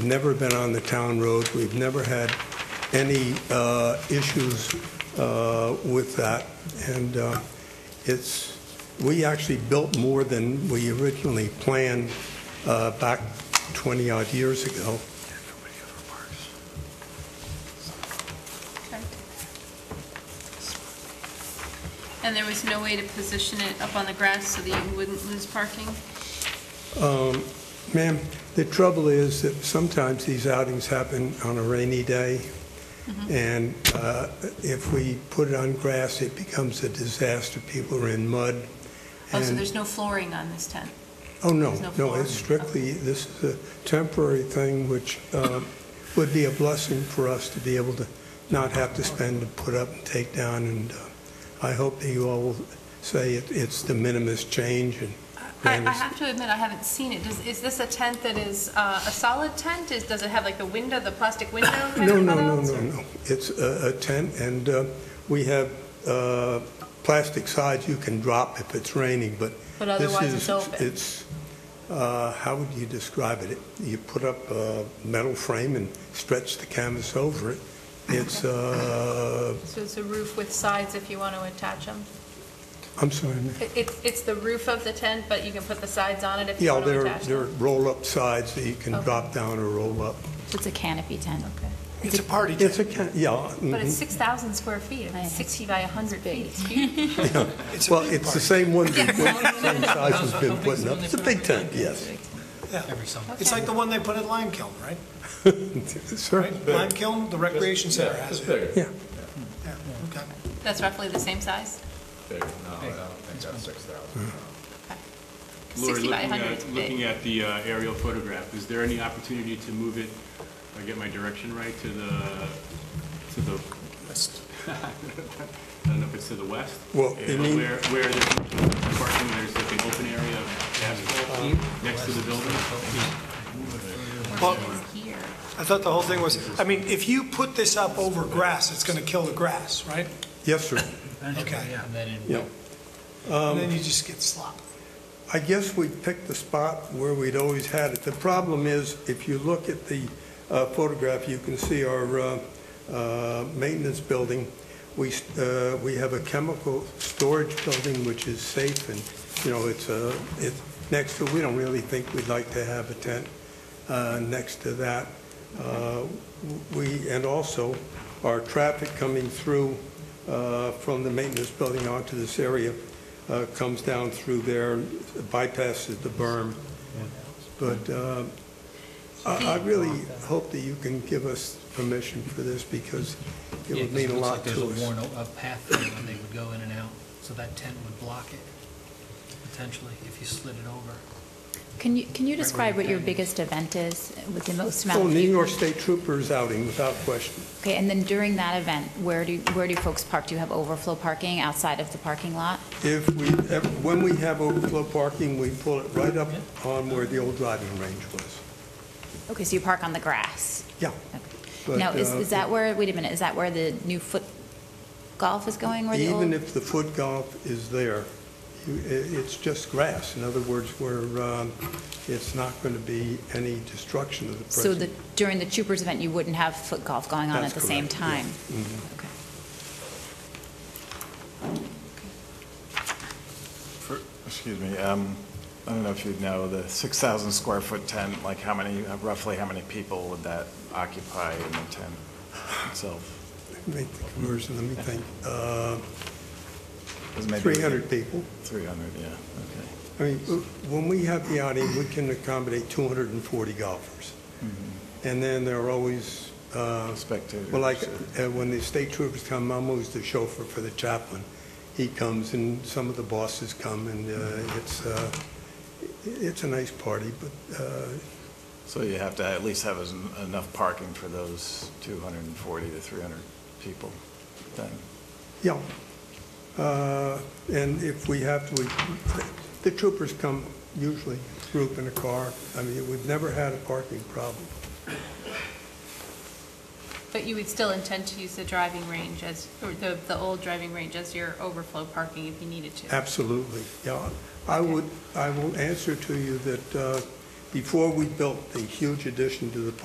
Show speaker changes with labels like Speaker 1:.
Speaker 1: never been on the town road. We've never had any uh, issues uh, with that. And uh, it's, we actually built more than we originally planned uh, back 20-odd years ago.
Speaker 2: And there was no way to position it up on the grass so that you wouldn't lose parking? Oh,
Speaker 1: Um, Ma'am, the trouble is that sometimes these outings happen on a rainy day,
Speaker 2: Mm-hmm.
Speaker 1: and uh, if we put it on grass, it becomes a disaster. People are in mud.
Speaker 2: Oh, so
Speaker 1: and-
Speaker 2: there's no flooring on this tent?
Speaker 1: Oh, no,
Speaker 2: there's no
Speaker 1: no,
Speaker 2: floor?
Speaker 1: it's strictly, this is a temporary thing which um, would be a blessing for us to be able to not have to spend to put up and take down, and uh, I hope that you all will say it- it's the minimus change and
Speaker 2: I, I
Speaker 1: Ma'am, it's-
Speaker 2: have to admit, I haven't seen it. Does, is this a tent that is uh, a solid tent? Is, does it have like the window, the plastic window kind
Speaker 1: No,
Speaker 2: of
Speaker 1: no, no,
Speaker 2: cutouts,
Speaker 1: no,
Speaker 2: or-
Speaker 1: no. It's a a tent, and uh, we have uh, plastic sides you can drop if it's raining, but
Speaker 2: But
Speaker 1: this
Speaker 2: otherwise it's
Speaker 1: is,
Speaker 2: open?
Speaker 1: it's, uh, how would you describe it? You put up a metal frame and stretch the canvas over it. It's, uh,
Speaker 2: So it's a roof with sides if you want to attach them?
Speaker 1: I'm sorry, ma'am.
Speaker 2: It, it's- it's the roof of the tent, but you can put the sides on it if you
Speaker 1: yeah,
Speaker 2: want to
Speaker 1: there are-
Speaker 2: attach
Speaker 1: there are
Speaker 2: them?
Speaker 1: roll-up sides that you can
Speaker 2: Okay.
Speaker 1: drop down or roll up.
Speaker 3: It's a canopy tent.
Speaker 4: It's a party
Speaker 1: It's
Speaker 4: tent.
Speaker 1: a, ca- yeah.
Speaker 2: But it's
Speaker 1: mhm.
Speaker 2: 6,000 square feet,
Speaker 3: I know.
Speaker 2: It's 60 by 100 feet.
Speaker 3: big.
Speaker 2: It's huge.
Speaker 4: It's a
Speaker 1: Well,
Speaker 4: big
Speaker 1: it's the
Speaker 4: party.
Speaker 1: same one, we've put- same size we've been putting up. It's a big tent, yes.
Speaker 5: Every summer.
Speaker 4: It's like the one they put at Lime Kiln, right?
Speaker 1: Sir?
Speaker 4: Right? Lime Kiln, the recreation center has it.
Speaker 6: bigger.
Speaker 1: Yeah.
Speaker 4: Yeah, okay.
Speaker 2: That's roughly the same size?
Speaker 6: Bigger, no, I don't think that's six thousand.
Speaker 7: Hmm.
Speaker 2: 60 by 100 is
Speaker 8: Lori, looking
Speaker 2: big.
Speaker 8: at, looking at the uh, aerial photograph, is there any opportunity to move it, if I get my direction right, to the, to the, I don't know if it's to the west?
Speaker 1: Well,
Speaker 8: Uh,
Speaker 1: you mean-
Speaker 8: Where, where there's parking, there's like an open area of asphalt next to the building?
Speaker 4: Well,
Speaker 2: Here.
Speaker 4: I thought the whole thing was, I mean, if you put this up over grass, it's going to kill the grass, right?
Speaker 1: Yes, sir.
Speaker 4: Okay.
Speaker 5: And then in- Um,
Speaker 1: Yeah.
Speaker 4: And then you just get slop.
Speaker 1: I guess we picked the spot where we'd always had it. The problem is, if you look at the uh, photograph, you can see our uh, uh, maintenance building. We, uh, we have a chemical storage building which is safe and, you know, it's, uh, it's next to, we don't really think we'd like to have a tent uh, next to that. Uh, We, and also, our traffic coming through uh, from the maintenance building onto this area uh, comes down through there, bypasses the berm. But uh, I I really hope that you can give us permission for this, because it
Speaker 5: Yeah,
Speaker 1: would
Speaker 5: 'cause
Speaker 1: mean a
Speaker 5: looks
Speaker 1: lot
Speaker 5: like
Speaker 1: to
Speaker 5: There's a
Speaker 1: us.
Speaker 5: worn, o- a path there where they would go in and out, so that tent would block it, potentially, if you slid it over.
Speaker 3: Can you, can you
Speaker 5: where
Speaker 3: describe what your
Speaker 5: you're
Speaker 3: biggest event is with the most amount
Speaker 1: Oh,
Speaker 3: of
Speaker 1: New
Speaker 3: people?
Speaker 1: York State Troopers outing, without question.
Speaker 3: Okay, and then during that event, where do, where do folks park? Do you have overflow parking outside of the parking lot?
Speaker 1: If we, ever- when we have overflow parking, we pull it right up on where the old driving range was.
Speaker 3: Okay, so you park on the grass?
Speaker 1: Yeah.
Speaker 3: Okay.
Speaker 1: But,
Speaker 3: Now, is,
Speaker 1: uh,
Speaker 3: is that where, wait a minute, is that where the new foot golf is going, where the old?
Speaker 1: Even if the foot golf is there, you- i- it's just grass. In other words, we're, um, it's not going to be any destruction of the present.
Speaker 3: So the, during the Troopers event, you wouldn't have foot golf going on
Speaker 1: That's
Speaker 3: at the same
Speaker 1: correct, yeah. Mm-hmm.
Speaker 3: time? Okay.
Speaker 7: For- Excuse me, um, I don't know if you know, the 6,000 square foot tent, like how many, roughly how many people would that occupy in the tent itself?
Speaker 1: Make the conversion, let me think. Uh,
Speaker 7: It was maybe-
Speaker 1: 300 people.
Speaker 7: 300, yeah, okay.
Speaker 1: I mean, w- Uh, when we have the outing, we can accommodate 240 golfers. And then there are always, uh,
Speaker 7: Spectators.
Speaker 1: well, like, uh, when the state troopers come, I'm always the chauffeur for the chaplain. He comes, and some of the bosses come, and uh, it's, uh, i- it's a nice party, but uh,
Speaker 7: So you have to at least have as- enough parking for those 240 to 300 people then?
Speaker 1: Yeah. Uh, And if we have to, we, the troopers come usually, group in a car. I mean, we've never had a parking problem.
Speaker 2: But you would still intend to use the driving range as, or the, the old driving range as your overflow parking if you needed to?
Speaker 1: Absolutely, yeah. I would, I will answer to you that uh, before we built the huge addition to the